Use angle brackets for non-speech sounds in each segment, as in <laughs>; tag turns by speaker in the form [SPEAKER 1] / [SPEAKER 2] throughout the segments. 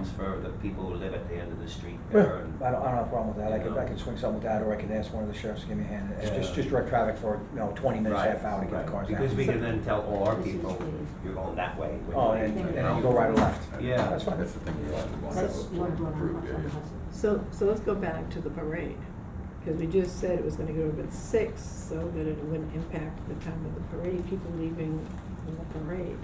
[SPEAKER 1] It's for the people who live at the end of the street
[SPEAKER 2] Yeah, I
[SPEAKER 1] there
[SPEAKER 2] don't,
[SPEAKER 1] and. uh,
[SPEAKER 2] I don't have a problem with that, I could,
[SPEAKER 1] Yeah.
[SPEAKER 2] I could swing something with that, or I could ask one of the sheriffs to give me a hand, it's just,
[SPEAKER 1] Yeah.
[SPEAKER 2] just direct traffic for, you know, twenty minutes,
[SPEAKER 1] Right,
[SPEAKER 2] half hour to get
[SPEAKER 1] right.
[SPEAKER 2] the cars out.
[SPEAKER 1] Because we
[SPEAKER 2] <laughs>
[SPEAKER 1] can then tell all our people, you're going that way. when
[SPEAKER 2] Oh,
[SPEAKER 1] you
[SPEAKER 2] and,
[SPEAKER 1] leave,
[SPEAKER 2] and
[SPEAKER 1] you know?
[SPEAKER 2] you go right or left.
[SPEAKER 1] Yeah.
[SPEAKER 2] That's fine.
[SPEAKER 3] That's the thing you want, you want
[SPEAKER 4] That's
[SPEAKER 3] to
[SPEAKER 4] you want to do it on
[SPEAKER 3] improve,
[SPEAKER 4] Hudson-
[SPEAKER 3] yeah,
[SPEAKER 4] on
[SPEAKER 3] yeah.
[SPEAKER 4] Hudson.
[SPEAKER 5] So, so let's go back to the parade, because we just said it was gonna go up at six, so that it wouldn't impact the time of the parade, people leaving in the parade.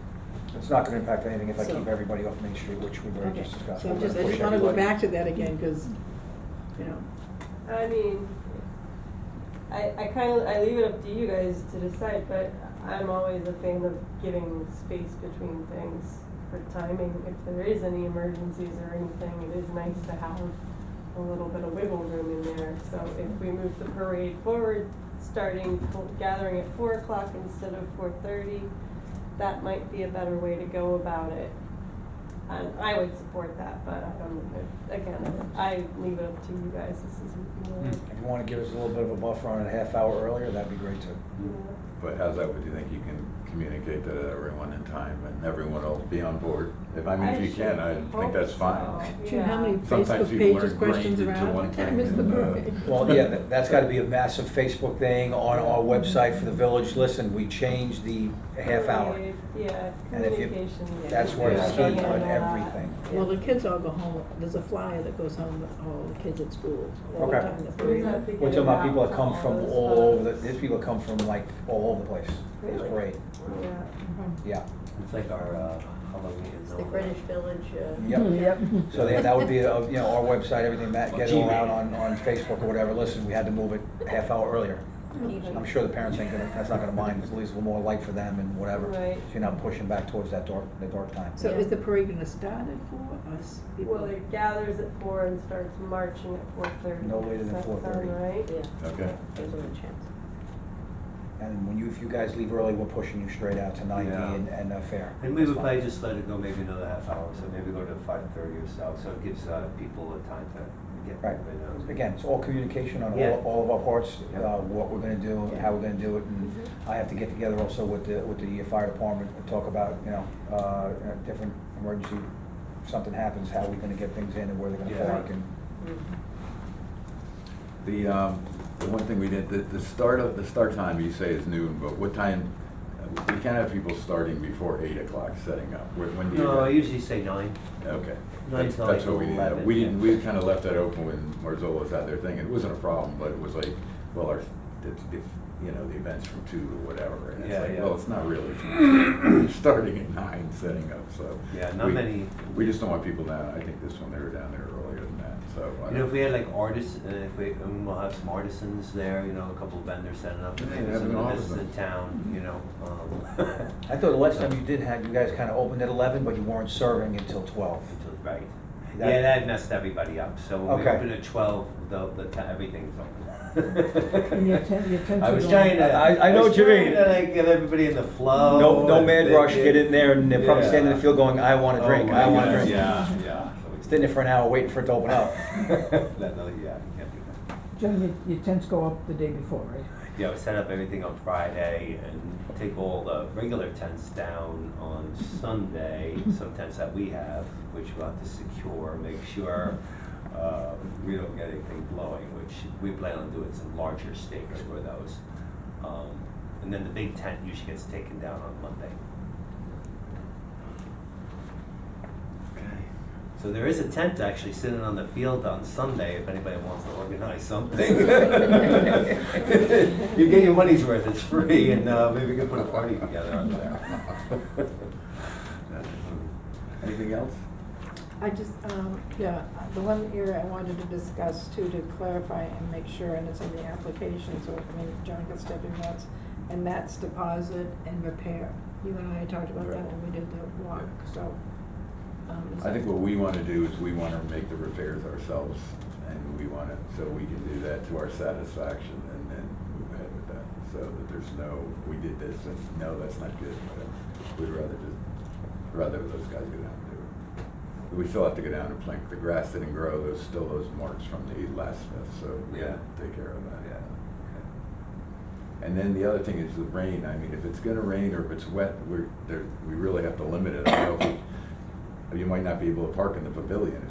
[SPEAKER 2] It's not gonna impact anything if I
[SPEAKER 5] So-
[SPEAKER 2] keep everybody off Main Street, which we already
[SPEAKER 5] Okay,
[SPEAKER 2] just discussed.
[SPEAKER 5] so
[SPEAKER 2] We're
[SPEAKER 5] I'm just, I
[SPEAKER 2] gonna
[SPEAKER 5] just
[SPEAKER 2] push
[SPEAKER 5] wanna go
[SPEAKER 2] everybody.
[SPEAKER 5] back to that again, because, you know,
[SPEAKER 6] I mean, I, I kind of, I leave it up to you guys to decide, but I'm always a fan of giving space between things for timing. If there is any emergencies or anything, it is nice to have a little bit of wiggle room in there. So if we move the parade forward, starting, fo- gathering at four o'clock instead of four thirty, that might be a better way to go about it. And I would support that, but I don't, again, I leave it up to you guys, this is more.
[SPEAKER 2] If you wanna give us a little bit of a buffer on it a half hour earlier, that'd be great too.
[SPEAKER 6] you know.
[SPEAKER 3] But how's that, would you think you can communicate that to everyone in time and everyone will be on board? If, I mean, if you can, I think that's fine.
[SPEAKER 5] shoot, how many
[SPEAKER 3] Sometimes
[SPEAKER 5] Facebook
[SPEAKER 3] people
[SPEAKER 5] pages,
[SPEAKER 3] are ingrained
[SPEAKER 5] questions
[SPEAKER 3] into
[SPEAKER 5] around,
[SPEAKER 3] one
[SPEAKER 5] what time
[SPEAKER 3] thing
[SPEAKER 5] is the
[SPEAKER 3] and, uh,
[SPEAKER 5] parade?
[SPEAKER 2] Well, yeah, that, that's gotta be a massive Facebook thing on our website for the village, listen, we changed the half hour.
[SPEAKER 6] Yeah,
[SPEAKER 2] And if you-
[SPEAKER 6] communication.
[SPEAKER 2] that's where
[SPEAKER 3] it's
[SPEAKER 6] Yeah.
[SPEAKER 3] key on
[SPEAKER 6] Yeah.
[SPEAKER 2] everything.
[SPEAKER 5] Well, the kids all go home, there's a flyer that goes home with all the kids at school, all the
[SPEAKER 2] Okay.
[SPEAKER 5] time the
[SPEAKER 6] Who's that
[SPEAKER 5] parade.
[SPEAKER 6] big
[SPEAKER 2] We're talking about people that come from all over, the-
[SPEAKER 6] those
[SPEAKER 2] these people come from like all over the place, it's
[SPEAKER 6] Really?
[SPEAKER 2] great,
[SPEAKER 6] spots? Yeah.
[SPEAKER 2] yeah.
[SPEAKER 1] It's like our uh, Halloween.
[SPEAKER 4] It's
[SPEAKER 1] and
[SPEAKER 4] the
[SPEAKER 1] all
[SPEAKER 4] Greenwich
[SPEAKER 1] that.
[SPEAKER 4] Village, uh.
[SPEAKER 2] Yep.
[SPEAKER 5] Yep.
[SPEAKER 2] So that, that would be, uh, you know, our website, everything, that, get it all out on, on Facebook or whatever, listen, we had to move it a half hour earlier. I'm sure the parents ain't gonna, that's not gonna mind, it's at least a little more light for them and whatever.
[SPEAKER 6] Right.
[SPEAKER 2] So you're not pushing back towards that dark, the dark time.
[SPEAKER 5] So is the parade gonna start at four, or s- people?
[SPEAKER 6] Well, it gathers at four and starts marching at four thirty.
[SPEAKER 2] No later than
[SPEAKER 6] Does that
[SPEAKER 2] 4:30.
[SPEAKER 6] sound right?
[SPEAKER 4] Yeah.
[SPEAKER 3] Okay.
[SPEAKER 4] There's a chance.
[SPEAKER 2] And when you, if you guys leave early, we're pushing you straight out to ninety
[SPEAKER 1] Yeah.
[SPEAKER 2] and, and uh, fair.
[SPEAKER 1] And we would probably just let it go maybe another half hour, so maybe go to five thirty or so, so it gives uh, people a time to get.
[SPEAKER 2] Right.
[SPEAKER 1] moving, uh,
[SPEAKER 2] Again, it's all communication on
[SPEAKER 1] Yeah.
[SPEAKER 2] all, all of our parts,
[SPEAKER 1] Yeah.
[SPEAKER 2] uh, what we're gonna do, how we're gonna do it, and I have to get together also with the, with the uh, fire department and talk about, you know, uh, uh, different emergency, if something happens, how we're gonna get things in and where they're gonna
[SPEAKER 1] Yeah.
[SPEAKER 2] park and.
[SPEAKER 3] The, um, the one thing we did, the, the start of, the start time you say is noon, but what time, we can't have people starting before eight o'clock setting up. When when do you?
[SPEAKER 1] No, I usually say nine.
[SPEAKER 3] Okay.
[SPEAKER 1] Nine
[SPEAKER 3] That's
[SPEAKER 1] till
[SPEAKER 3] that's
[SPEAKER 1] like
[SPEAKER 3] what we didn't,
[SPEAKER 1] 11,
[SPEAKER 3] we didn't,
[SPEAKER 1] yeah.
[SPEAKER 3] we kind of left that open when Marzola's had their thing. It wasn't a problem, but it was like, well, our, if, if, you know, the event's from two to whatever. And it's
[SPEAKER 1] Yeah,
[SPEAKER 3] like,
[SPEAKER 1] yeah.
[SPEAKER 3] well, it's not really, <coughs> from two. starting at nine, setting up, so.
[SPEAKER 1] Yeah, not
[SPEAKER 3] we-
[SPEAKER 1] many-
[SPEAKER 3] We just don't want people down. I think this one, they were down there earlier than that, so. I
[SPEAKER 1] You know, if
[SPEAKER 3] don't-
[SPEAKER 1] we had like artists, uh, if we, and we'll have some artisans there, you know, a couple of vendors setting up, and
[SPEAKER 3] Yeah,
[SPEAKER 1] maybe
[SPEAKER 3] have
[SPEAKER 1] some
[SPEAKER 3] an
[SPEAKER 1] of the business in
[SPEAKER 3] artisan.
[SPEAKER 1] town, you know. um, <laughs>
[SPEAKER 2] I thought the last time you did have, you guys kind of opened at eleven, but you weren't serving until twelve.
[SPEAKER 1] until- Right.
[SPEAKER 2] That-
[SPEAKER 1] Yeah, that messed everybody up, so when we
[SPEAKER 2] Okay.
[SPEAKER 1] open at twelve, the, the, ti- everything's open.
[SPEAKER 7] And your atten- your attention
[SPEAKER 1] I was
[SPEAKER 7] on-
[SPEAKER 1] trying to.
[SPEAKER 2] I- I know
[SPEAKER 1] was
[SPEAKER 2] what you
[SPEAKER 1] trying
[SPEAKER 2] mean.
[SPEAKER 1] to, like get everybody in the flow.
[SPEAKER 2] No, no
[SPEAKER 1] and
[SPEAKER 2] mad
[SPEAKER 1] they-
[SPEAKER 2] rush,
[SPEAKER 1] they-
[SPEAKER 2] get in there and they're probably standing in the
[SPEAKER 1] Yeah.
[SPEAKER 2] field going, I want a
[SPEAKER 1] Oh
[SPEAKER 2] drink,
[SPEAKER 1] my
[SPEAKER 2] I want a
[SPEAKER 1] gosh,
[SPEAKER 2] drink.
[SPEAKER 1] Yeah, yeah.
[SPEAKER 2] Sitting there for an hour waiting for it to open up.
[SPEAKER 1] <laughs> That, no, yeah, you can't do that.
[SPEAKER 7] Jim, your, your tents go up the day before, right?
[SPEAKER 1] Yeah, we set up everything on Friday and take all the regular tents down on Sunday, some tents that we have, which we'll have to secure, make sure uh, we don't get anything blowing, which we plan on doing some larger stakes for those. Um, And then the big tent usually gets taken down on Monday. So there is a tent actually sitting on the field on Sunday if anybody wants to organize something. you get your money's worth, it's free, and uh, maybe we can put a party together on there.
[SPEAKER 3] Anything else?
[SPEAKER 5] I just, um, yeah, the one area I wanted to discuss too, to clarify and make sure, and it's in the application, so I mean, Johnny can step in once, and that's deposit and repair. You and I talked about that when we did the walk, so. um, is
[SPEAKER 3] I think
[SPEAKER 5] that-
[SPEAKER 3] what we want to do is we want to make the repairs ourselves, and we want to, so we can do that to our satisfaction, and then move ahead with that, so that there's no, we did this, and no, that's not good, whatever. We'd rather just, rather those guys go down and do it. We still have to go down and plank the grass didn't grow, there's still those marks from the last fest, so we
[SPEAKER 1] Yeah.
[SPEAKER 3] gotta take care of that.
[SPEAKER 1] Yeah.
[SPEAKER 3] And then the other thing is the rain. I mean, if it's gonna rain or if it's wet, we're, there, we really have to limit it. I don't know if we- you might not be able to park in the pavilion